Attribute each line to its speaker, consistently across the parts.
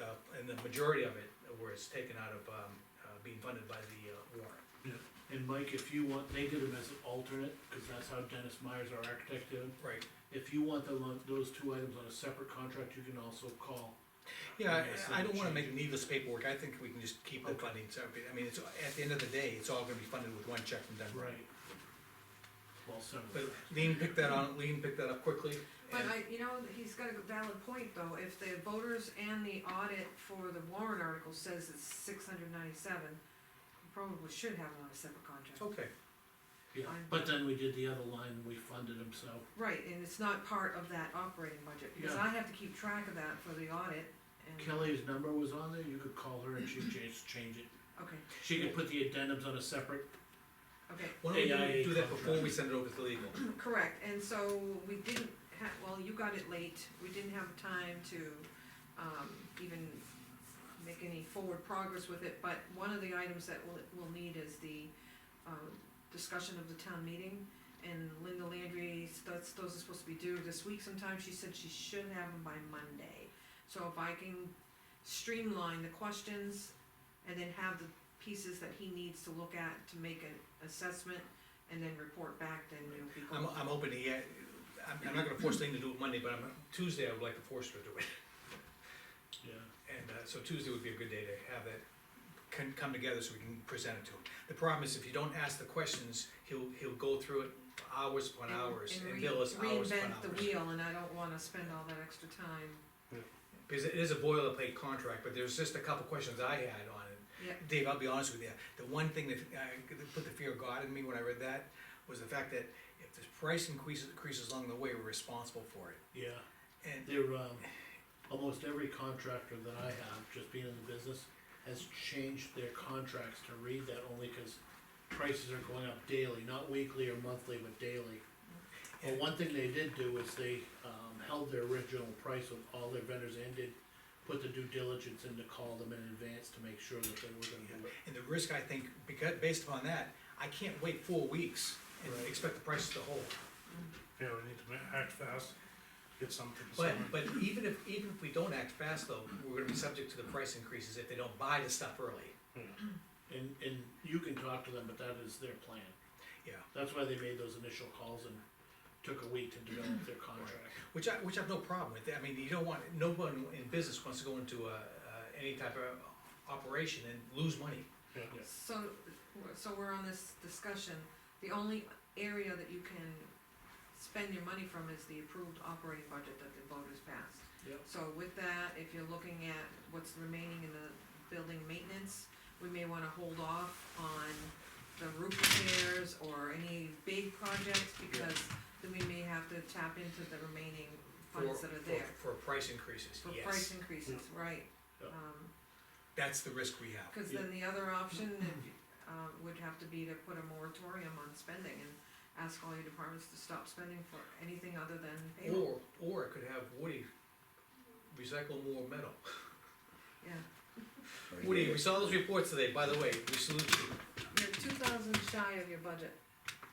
Speaker 1: uh, the majority of it was taken out of, um, uh, being funded by the uh, warrant.
Speaker 2: Yeah, and Mike, if you want, they did them as an alternate, cause that's how Dennis Myers, our architect, did them.
Speaker 1: Right.
Speaker 2: If you want them on, those two items on a separate contract, you can also call.
Speaker 1: Yeah,
Speaker 2: Yes,
Speaker 1: I, I
Speaker 2: and
Speaker 1: don't wanna
Speaker 2: change
Speaker 1: make needless paperwork, I think we can just keep the
Speaker 2: Okay.
Speaker 1: funding separate, I mean, it's, at the end of the day, it's all gonna be funded with one check from Denver.
Speaker 2: Well, seven.
Speaker 1: But Lean picked that on, Lean picked that up quickly,
Speaker 3: But
Speaker 1: and,
Speaker 3: I, you know, he's got a valid point though, if the voters and the audit for the warrant article says it's six hundred ninety-seven, you probably should have it on a separate contract.
Speaker 1: okay,
Speaker 2: Yeah, but then we did the other line and we funded them, so,
Speaker 3: Right, and it's not part of that operating budget, because
Speaker 2: Yeah.
Speaker 3: I have to keep track of that for the audit and,
Speaker 2: Kelly's number was on there, you could call her and she'd change, change it.
Speaker 3: okay,
Speaker 2: She could put the addendums on a separate,
Speaker 3: okay.
Speaker 1: why don't we
Speaker 2: AIA
Speaker 1: do that before we
Speaker 2: contract.
Speaker 1: send it over to legal?
Speaker 3: Correct, and so we didn't have, well, you got it late, we didn't have time to, um, even make any forward progress with it, but one of the items that we'll, we'll need is the, um, discussion of the town meeting, and Linda Landry, that's, those are supposed to be due this week sometime, she said she should have them by Monday. So if I can streamline the questions, and then have the pieces that he needs to look at to make an assessment, and then report back, then it'll be.
Speaker 1: I'm, I'm hoping to, get- I'm, I'm not gonna force Lean to do it Monday, but I'm, Tuesday I would like to force her to do it.
Speaker 2: yeah.
Speaker 1: And uh, so Tuesday would be a good day to have that can come together so we can present it to him. The problem is if you don't ask the questions, he'll, he'll go through it hours upon
Speaker 3: and-
Speaker 1: hours and
Speaker 3: re-
Speaker 1: bill us hours upon
Speaker 3: Reinvent the
Speaker 1: hours.
Speaker 3: wheel, and I don't wanna spend all that extra time,
Speaker 1: Because it is a boilerplate contract, but there's just a couple questions I had on it.
Speaker 3: yeah,
Speaker 1: Dave, I'll be honest with you, the one thing that, uh, that put the fear of God in me when I read that was the fact that if the price increases, increases along the way, we're responsible for it.
Speaker 2: Yeah,
Speaker 1: And
Speaker 2: they're, um, almost every contractor that I have, just being in the business, has changed their contracts to read that only cause prices are going up daily, not weekly or monthly, but daily. Well, one thing they did do is they, um, held their original price with all their vendors and did put the due diligence in to call them in advance to make sure that they were gonna do it.
Speaker 1: And the risk, I think, because, based upon that, I can't wait four weeks and
Speaker 2: Right.
Speaker 1: expect the prices to hold.
Speaker 4: Yeah, we need to ma- act fast, get something.
Speaker 1: But,
Speaker 4: signed.
Speaker 1: but even if, even if we don't act fast though, we're gonna be subject to the price increases if they don't buy the stuff early.
Speaker 2: And, and you can talk to them, but that is their plan.
Speaker 1: Yeah.
Speaker 2: That's why they made those initial calls and took a week to develop their contract.
Speaker 1: Which I, which I have no problem with, I mean, you don't want, no one in business wants to go into a, uh, any type of operation and lose money.
Speaker 4: Yeah.
Speaker 2: Yeah.
Speaker 3: so, so we're on this discussion, the only area that you can spend your money from is the approved operating budget that the voters passed.
Speaker 2: Yep.
Speaker 3: So with that, if you're looking at what's remaining in the building maintenance, we may wanna hold off on the roof repairs or any big projects, because then we may have to tap into the remaining
Speaker 1: for-
Speaker 3: funds that are
Speaker 1: for-
Speaker 3: there.
Speaker 1: For price increases,
Speaker 3: For price
Speaker 1: yes,
Speaker 3: increases, right,
Speaker 2: Yeah.
Speaker 3: um,
Speaker 1: that's the risk we have.
Speaker 3: cause then the other option,
Speaker 1: Mm-hmm.
Speaker 3: if, uh, would have to be to put a moratorium on spending and ask all your departments to stop spending for anything other than payroll,
Speaker 1: Or, or it could have Woody recycle more metal.
Speaker 3: yeah.
Speaker 1: Woody, we saw those reports today, by the way, we salute you.
Speaker 3: You're two thousand shy of your budget,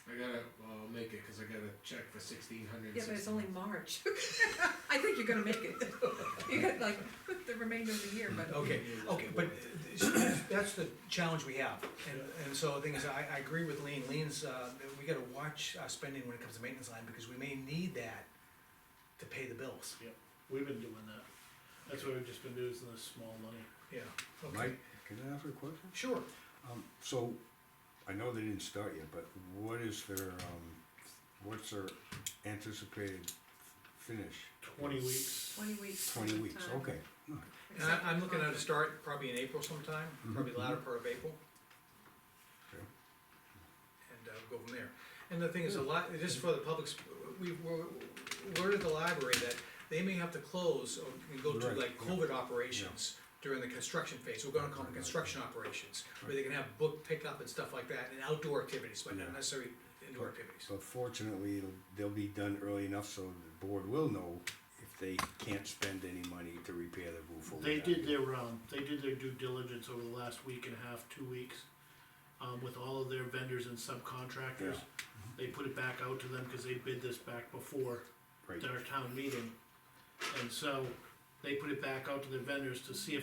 Speaker 5: I gotta, well, I'll make it, cause I gotta check for sixteen hundred.
Speaker 3: yeah, but it's only March, I think you're gonna make it, you got like the remainder of the year, but.
Speaker 1: Okay, okay, but that's the challenge we have, and, and so the thing is, I, I agree with Lean, Lean's, uh, we gotta watch our spending when it comes to maintenance line, because we may need that to pay the bills,
Speaker 2: We've been doing that. That's why we've just been using this small money.
Speaker 1: yeah. okay.
Speaker 6: Mike, can I ask a question?
Speaker 1: Sure,
Speaker 6: Um, so, I know they didn't start yet, but what is their, um, what's their anticipated finish?
Speaker 2: Twenty weeks.
Speaker 3: Twenty weeks.
Speaker 6: Twenty weeks,
Speaker 3: time.
Speaker 6: okay, alright.
Speaker 1: and I, I'm looking at a start probably in April sometime, probably latter part of April.
Speaker 6: Mm-hmm. Okay.
Speaker 1: And, uh, go from there, and the thing is, a lot, just for the public's, we, we learned at the library that they may have to close or can go to
Speaker 6: Right,
Speaker 1: like
Speaker 6: yeah.
Speaker 1: COVID operations during the construction phase, we're gonna call them construction operations, where they can have book pickup and stuff like that, and outdoor activities, but not
Speaker 6: Yeah.
Speaker 1: necessarily indoor activities.
Speaker 6: So fortunately, it'll, they'll be done early enough so the board will know if they can't spend any money to repair the roof or
Speaker 2: They
Speaker 6: whatever.
Speaker 2: did their, um, they did their due diligence over the last week and a half, two weeks, um, with all of their vendors and subcontractors.
Speaker 6: Yeah.
Speaker 2: They put it back out to them, cause they bid this back before
Speaker 6: Right.
Speaker 2: their town meeting. And so, they put it back out to their vendors to see if